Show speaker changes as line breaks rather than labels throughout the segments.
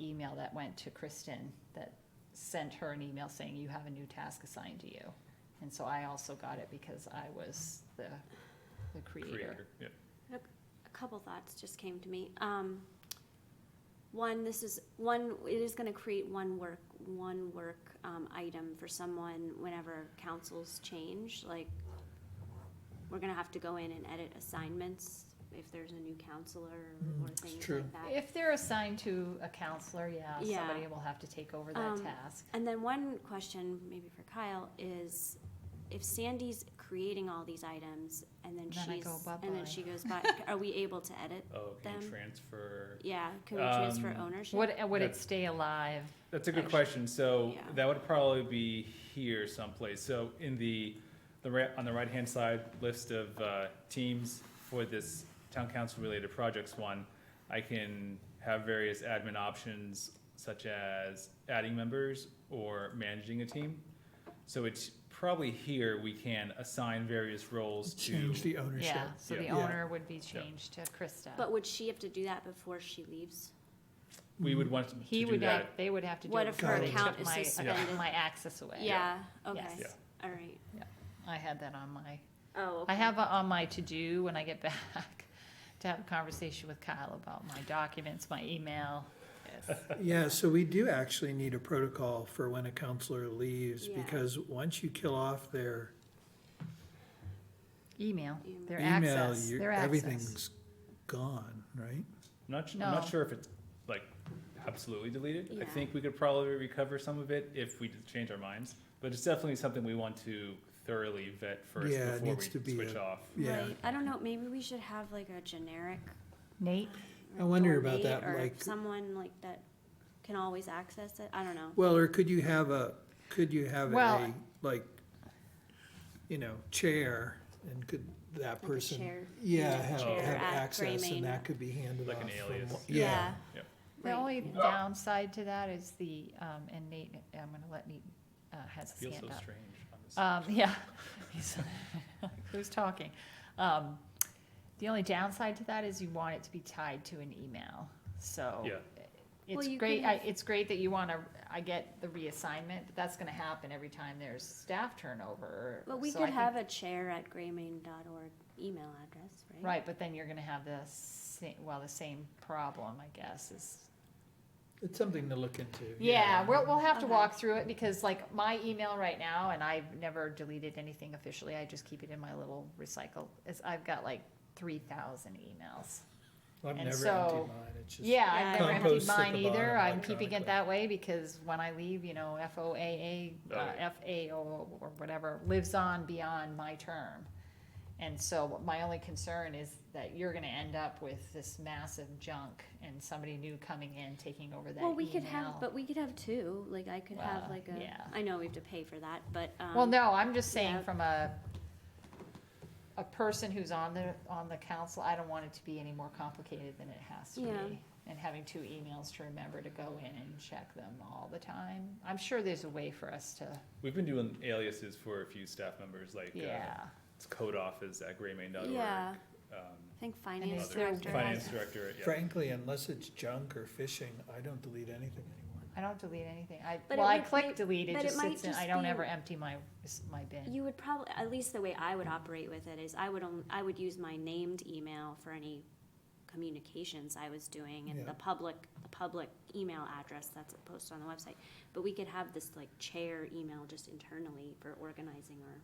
email that went to Kristen that sent her an email saying you have a new task assigned to you. And so I also got it because I was the, the creator.
creator, yeah.
A couple thoughts just came to me. Um, one, this is, one, it is gonna create one work, one work, um, item for someone whenever councils change, like, we're gonna have to go in and edit assignments if there's a new counselor or things
true.
like that.
If they're assigned to a counselor, yeah,
Yeah.
somebody will have to take over that
Um,
task.
And then one question, maybe for Kyle, is if Sandy's creating all these items and then
Then I
she's,
go
and
bye-bye.
then she goes by, are we able to edit?
Oh, can you
Them.
transfer?
Yeah, can we transfer
Um,
ownership?
Would, would it
That-
stay alive?
That's a good
Actually,
question. So
yeah.
that would probably be here someplace. So in the, the right, on the right-hand side list of, uh, teams for this town council-related projects one, I can have various admin options such as adding members or managing a team. So it's probably here we can assign various roles to.
Change the ownership.
Yeah, so the
Yeah.
owner would be changed to Krista.
But would she have to do that before she leaves?
We would want to
He
do
would,
that.
act- they would have to do
What
it
if
before
her
they
account
took
is
my,
suspended?
my access away.
Yeah,
Yes.
okay,
Yeah.
all right.
I had that on my,
Oh,
I have on my to-do when I get back, to have a conversation with Kyle about my documents, my email. Yes.
Yeah, so we do actually need a protocol for when a counselor leaves,
Yeah.
because once you kill off their
Email, their
email,
access,
you-
their access.
everything's gone, right?
I'm not, su-
No.
I'm not sure if it's like absolutely deleted. I
Yeah.
think we could probably recover some of it if we did change our minds. But it's definitely something we want to thoroughly vet first
Yeah, it
before
needs to
we
be
switch
a-
off.
Yeah.
Right, I don't know, maybe we should have like a generic.
Nate,
I wonder
or
about
date
that,
or
like-
Someone like that can always access it, I don't know.
Well, or could you have a, could you have a,
Well-
like, you know, chair, and could that
a
person?
chair.
Yeah,
Yeah,
have,
chair
have
at
access,
framing.
and that could be handed off.
Like an
from
alias.
one-
Yeah.
Yeah,
the
Right.
only downside to that is the, um, and Nate, I'm gonna let Nate, uh, has his
Feels so
hand up.
strange on this.
Um, yeah, He's- who's talking? Um, the only downside to that is you want it to be tied to an email, so.
Yeah.
Well,
It's
you
great,
could
I,
have-
it's great that you wanna, I get the reassignment, but that's gonna happen every time there's staff turnover.
But we
so I
could
think-
have a chair at graymain.org email address, right?
Right, but then you're gonna have the same, well, the same problem, I guess, is
it's something to look into.
Yeah, we'll, we'll have to
Okay.
walk through it because like my email right now, and I've never deleted anything officially, I just keep it in my little recycle, is I've got like three thousand emails.
I've
and
never emptied
so-
mine, it's just.
Yeah, I've never emptied
Compost at
mine
the bottom
either, I'm keeping
electronically.
it that way because when I leave, you know, FOAA,
Oh,
uh,
yeah.
FAO or whatever, lives on beyond my term. And so my only concern is that you're gonna end up with this massive junk and somebody new coming in, taking over that email.
Well, we could have, but we could have two, like I could have
Well,
like a,
yeah.
I know we have to pay for that, but, um.
Well, no, I'm just saying
yeah.
from a, a person who's on the, on the council, I don't want it to be any more complicated than it has to
Yeah.
be. And having two emails to remember to go in and check them all the time. I'm sure there's a way for us to,
We've been doing aliases for a few staff members, like uh,
yeah.
it's code office at graymain.org.
Yeah,
um,
I think
it's
finance
other-
their
director
Finance
has.
director, yeah.
Frankly, unless it's junk or phishing, I don't delete anything anymore.
I don't delete anything. I,
But
well,
it
I
would
click
make-
delete, it
but it
just
might
sits in, I
just
don't
be-
ever empty my, my bin.
You would probably, at least the way I would operate with it is I would only, I would use my named email for any communications I was doing and
Yeah.
the public, the public email address that's posted on the website. But we could have this like chair email just internally for organizing or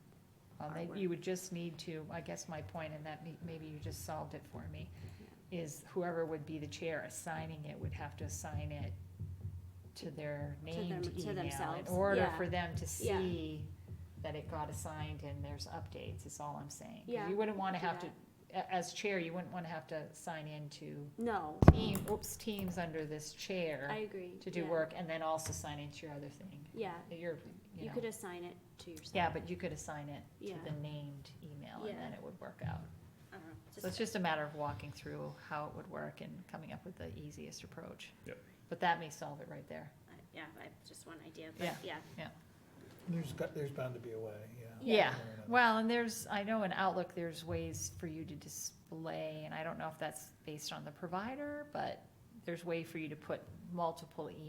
Well, they-
artwork.
Uh, you would just need to, I guess my point, and that may- maybe you just solved it for me, is whoever would be the chair assigning it would have to assign it to their
them-
named
to
email in
themselves,
order
yeah.
for them to
Yeah.
see that it got assigned and there's updates, is all I'm saying. 'Cause
Yeah,
You wouldn't wanna
do
have to, a- as chair, you wouldn't wanna have to sign into
No,
team, oops, teams under this
Mm. I
chair
agree.
to do
yeah.
work and then also sign into your other thing,
Yeah,
your, you
you
know.
could assign it to yourself.
Yeah, but you could assign it to
Yeah.
the named email and then
Yeah.
it would work out.
I don't know,
So it's just a matter of walking through how it would work and coming up with the easiest approach.
Yep.
But that may solve it right there.
I- Yeah, I have just one idea, but
Yeah.
yeah.
There's got, there's bound to be a way, yeah.
Yeah, well, and there's, I know in Outlook, there's ways for you to display, and I don't know if that's based on the provider, but there's way for you to put multiple emails